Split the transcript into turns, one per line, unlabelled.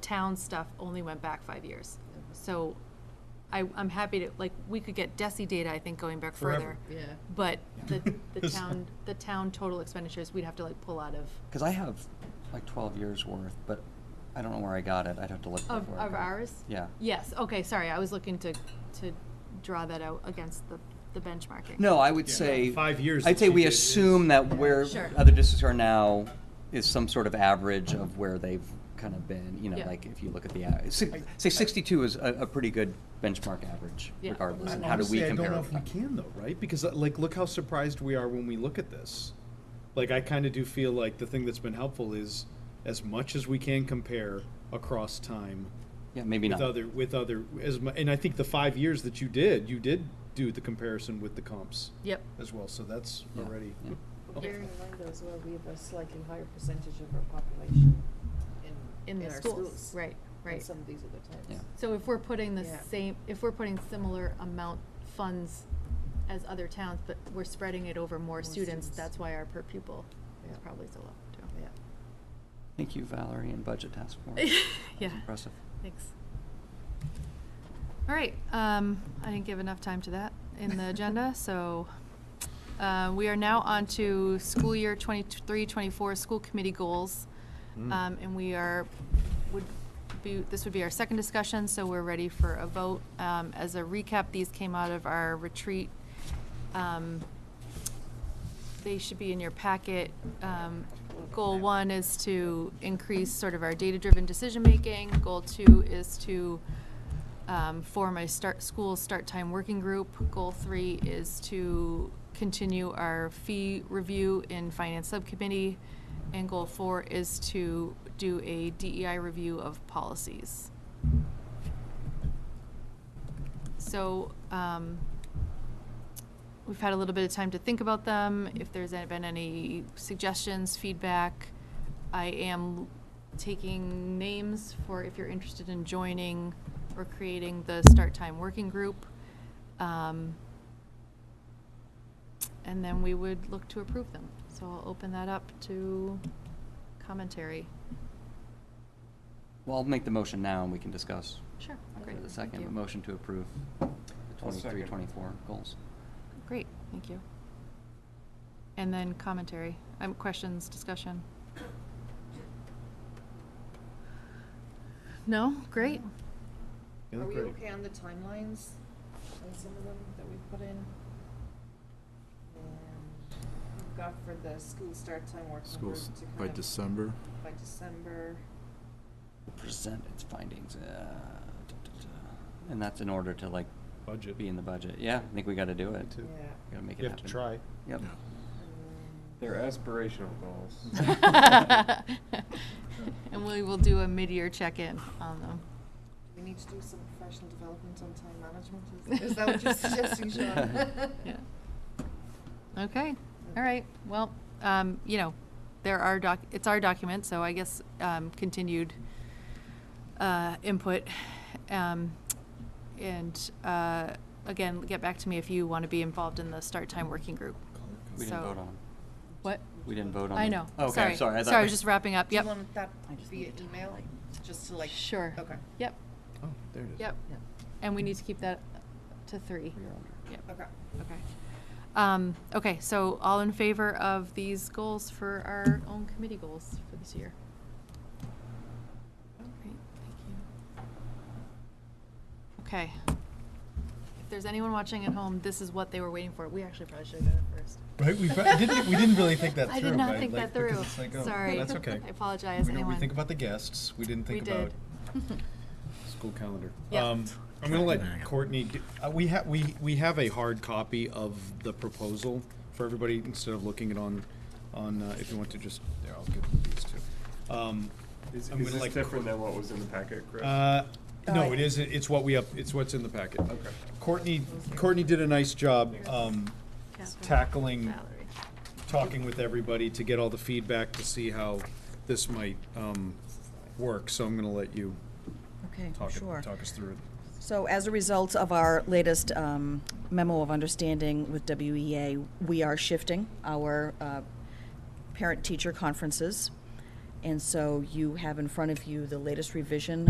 town stuff only went back five years. So I, I'm happy to, like, we could get DESI data, I think, going back further.
Forever.
Yeah.
But the, the
Yes.
town, the town total expenditures, we'd have to like pull out of,
Because I have like 12 years worth, but I don't know where I got it. I'd have to look
of,
for it.
of ours?
Yeah.
Yes, okay, sorry, I was looking to, to draw that out against the, the benchmarking.
No, I would
Yeah,
say.
five years
I'd
that
say
she
we
did is-
assume that where
Sure.
other districts are now is some sort of average of where they've kind of been, you know,
Yeah.
like if you look at the, a- si- say 62 is a, a pretty good benchmark average
Yeah.
regardless. And how do we
Honestly, I don't
compare?
know
with
if we
that?
can though, right? Because uh, like, look how surprised we are when we look at this. Like, I kind of do feel like the thing that's been helpful is as much as we can compare across time
Yeah, maybe
with
not.
other, with other, as mu- and I think the five years that you did, you did do the comparison with the comps
Yep,
as well, so that's
Yeah,
already.
yeah.
Bearing in mind though as well, we have a slightly higher percentage of our population in,
in the
in our
schools,
schools.
right,
Than
right.
some of these other towns.
Yeah.
So if we're putting the
Yeah.
same, if we're putting similar amount funds as other towns, but we're spreading it over more
More
students,
students.
that's why our per pupil is
Yeah.
probably so low, too.
Yeah.
Thank you, Valerie and Budget Task Force.
Yeah.
That's impressive.
Thanks. All right, um, I didn't give enough time to that in the agenda, so, uh, we are now on to school year twenty-three, twenty-four, school committee goals.
Mm.
Um, and we are, would be, this would be our second discussion, so we're ready for a vote. Um, as a recap, these came out of our retreat. Um, they should be in your packet. Um, Goal one is to increase sort of our data-driven decision-making. Goal two is to um, form a start, school start time working group. Goal three is to continue our fee review in finance subcommittee. And goal four is to do a DEI review of policies. So, um, we've had a little bit of time to think about them, if there's a- been any suggestions, feedback. I am taking names for if you're interested in joining or creating the start time working group. Um, And then we would look to approve them. So I'll open that up to commentary.
Well, I'll make the motion now and we can discuss.
Sure, great,
For the
thank
second,
you.
a motion to approve the 23,
second.
24 goals.
Great, thank you. And then commentary, um, questions, discussion? No? Great.
Yeah,
Are we
great.
okay on the timelines on some of them that we put in? And we've got for the school start time working group
Schools
to
by
kind of-
December.
By December.
present its findings. uh, da, da, da. And that's in order to like
Budget.
be in the budget. Yeah, I think we gotta do it.
too.
Yeah.
Gotta make it happen.
You have to try.
Yep.
Yeah.
And
They're aspirational goals.
And we will do a mid-year check-in on them.
We need to do some professional development on time management. Is is that what you're suggesting, Sean?
Yeah. Okay, all right, well, um, you know, there are doc, it's our document, so I guess, um, continued, uh, input. Um, and, uh, again, get back to me if you want to be involved in the start time working group.
We
So-
didn't vote on,
What?
we didn't vote on.
I
the-
know,
Oh, Okay,
sorry,
I'm sorry.
sorry,
I thought
I
we-
was just wrapping up, yep.
Do you want that
I just
via
need to
email, just to like?
Sure.
Okay,
Yep,
Oh, there it is.
yep,
Yeah.
and we need to keep that to three.
We are under.
Yep.
okay.
Okay. Um, okay, so all in favor of these goals for our own committee goals for this year? All right, thank you. Okay. If there's anyone watching at home, this is what they were waiting for. We actually probably should have done it first.
Right, we, fa- didn't, we didn't really think that through.
I did not
right?
think
Like,
that through.
because it's like, oh,
Sorry.
That's okay.
I apologize,
We don't-
anyone.
We think about the guests, we didn't
We
think
did.
about school calendar.
Yeah.
Um, I'm gonna let Courtney, do- uh, we have, we, we have a hard copy of the proposal for everybody, instead of looking it on, on, uh, if you want to just, there, I'll give these two. Um,
Is,
I'm
is
gonna
this
like-
different than what was in the packet, Chris?
uh,
Uh,
no, it is, it's what we up, it's what's in the packet.
Okay.
Courtney, Courtney did a nice job, um,
Catherine,
tackling
Valerie.
talking with everybody to get all the feedback to see how this might um, work, so I'm gonna let you
Okay,
talk, it-
sure.
talk us through it.
So as a result of our latest um, memo of understanding with E WEA, we are shifting our uh, parent-teacher conferences And so you have in front of you the latest revision